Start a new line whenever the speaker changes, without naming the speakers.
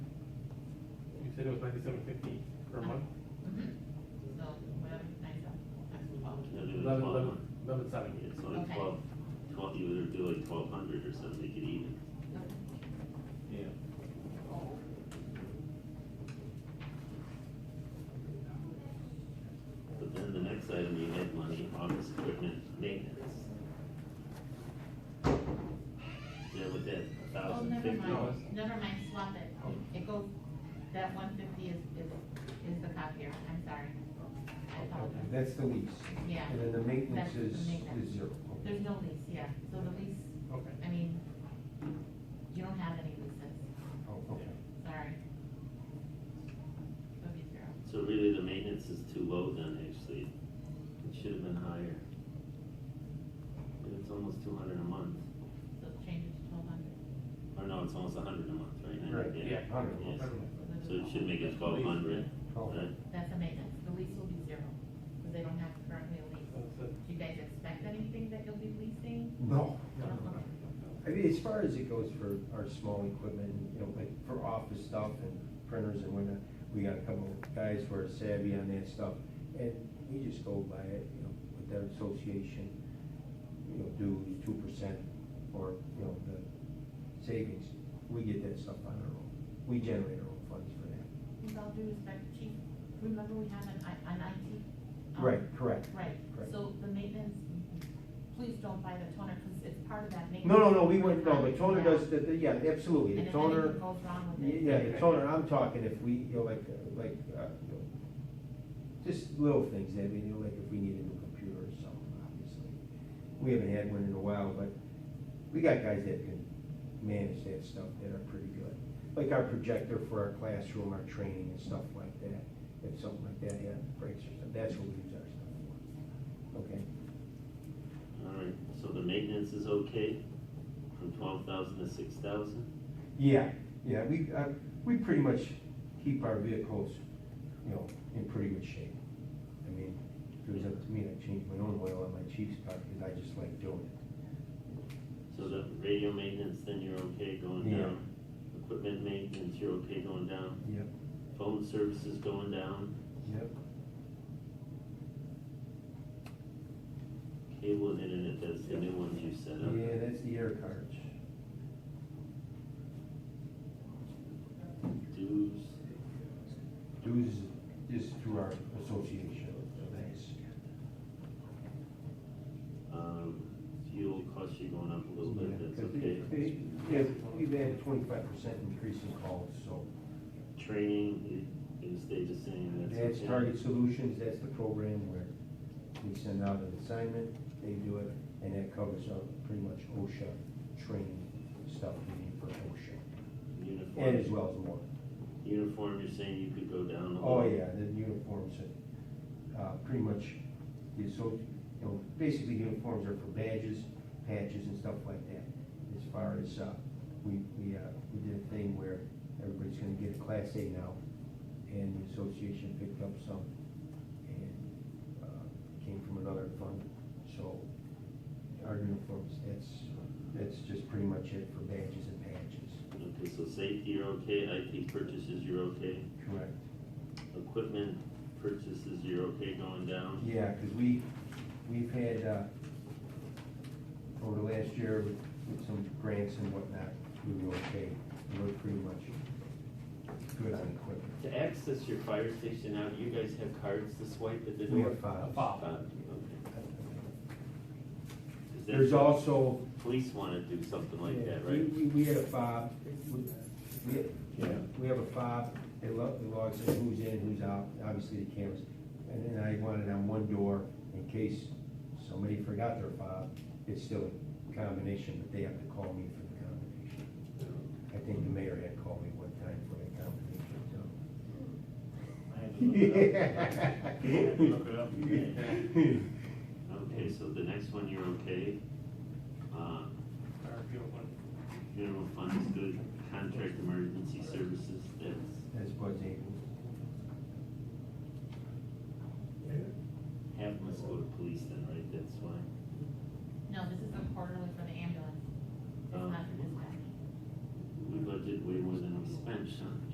said it was ninety-seven fifty per month,
Mhm. So, whatever, nice, that's twelve.
Yeah, do it
eleven,
twelve
eleven,
month.
eleven seven.
Yeah, so like
Okay.
twelve, twelve, you would do like twelve hundred or something, make it even.
Yeah.
But then the next item, you had money, office equipment maintenance. Yeah, with that
Oh,
thousand
never
fifty.
mind, never mind, swap it. It goes, that one fifty is, is, is the copier, I'm sorry. I apologize.
That's the lease.
Yeah.
And then the maintenance
That's the
is,
maintenance.
is zero.
There's no lease, yeah, so the lease,
Okay.
I mean, you don't have any leases,
Oh, okay.
sorry. It'll be zero.
So really, the maintenance is too low then, actually. It should have been higher. But It's almost two hundred a month,
So change it to twelve hundred.
or no, it's almost a hundred a month, right? now.
Right,
Yeah.
Hundred.
Yes. So it should make it twelve hundred,
Twelve.
right?
That's a maintenance, the lease will be zero, because they don't have currently a lease. Do you guys expect anything that you'll be leasing?
No.
No, no,
Uh-huh.
no,
I mean, as far as it goes for our small equipment, you know, like for office stuff and printers and whatnot, we got a couple of guys who are savvy on that stuff, and we just go by it, you know, with their association, you know, do two percent or, you know, the savings, we get that stuff on our own. We generate our own funds for that.
With all due respect, chief, remember we have an, I- an IT? um,
Right, correct.
Right,
Correct.
so the maintenance, please don't buy the toner, because it's part of that maintenance.
No, no, no, we wouldn't, no, the toner does, the, the- yeah,
And
absolutely,
if
the toner.
anything goes wrong with it.
Yeah, the toner, I'm talking if we, you know, like, uh, like, uh, you know, just little things, I mean, you know, like if we need a new computer or something, obviously. We haven't had one in a while, but we got guys that can manage that stuff that are pretty good. Like our projector for our classroom, our training and stuff like that, if something like that, yeah, breaks or something, that's what we use our stuff for. Okay,
All right, so the maintenance is okay, from twelve thousand to six thousand?
yeah, yeah, we, uh, we pretty much keep our vehicles, you know, in pretty good shape. I mean, if it was up to me, I'd change my own oil on my chief's car because I just like doing it.
So the radio maintenance, then you're okay going
Yeah.
down? Equipment maintenance, you're okay going down?
Yep.
Phone services going down?
Yep.
Cable and internet, that's the new ones you set up?
Yeah, that's the air cards.
Dues?
Dues is through our association. Thanks.
Um, fuel costs you going up a little
Yeah,
bit, that's
'cause
okay.
they- they- Yeah, we've had a twenty-five percent increase in calls, so.
Training, you, you stay the same, that's okay.
That's Target Solutions, that's the program where we send out an assignment, they do it, and that covers our pretty much OSHA training stuff we need for OSHA. And as
Uniform,
well as more.
uniform, you're saying you could go down a little?
Oh, yeah, the uniforms, uh, pretty much, the so, you know, basically uniforms are for badges, patches and stuff like that. As far as, uh, we, we, uh, we did a thing where everybody's gonna get a class A now, and the association picked up some, and, uh, came from another fund, so our uniforms, that's, that's just pretty much it for badges and patches.
Okay, so safety, you're okay, IT purchases, you're okay,
Correct.
equipment purchases, you're okay going down?
Yeah, because we, we've had, uh, over the last year with- with some grants and whatnot, we were okay. We We're pretty much good on equipment.
To access your fire station now, do you guys have cards to swipe at the door?
We have files.
Fob, okay. 'Cause that's
There's
what
also.
Police wanna do something like that,
Yeah,
right?
We, we- we had a fob, we, we, yeah, we have a fob, it lo- it logs in who's in, who's out, obviously the cameras. And then I wanted on one door, in case somebody forgot their fob, it's still a combination, but they have to call me for the combination. I think the mayor had called me one time for that combination,
I
so.
had to look it up. I had to look it up.
Yeah,
Okay, so the next one, you're okay. Uh,
Our fuel one.
funeral fund is good, contract emergency services,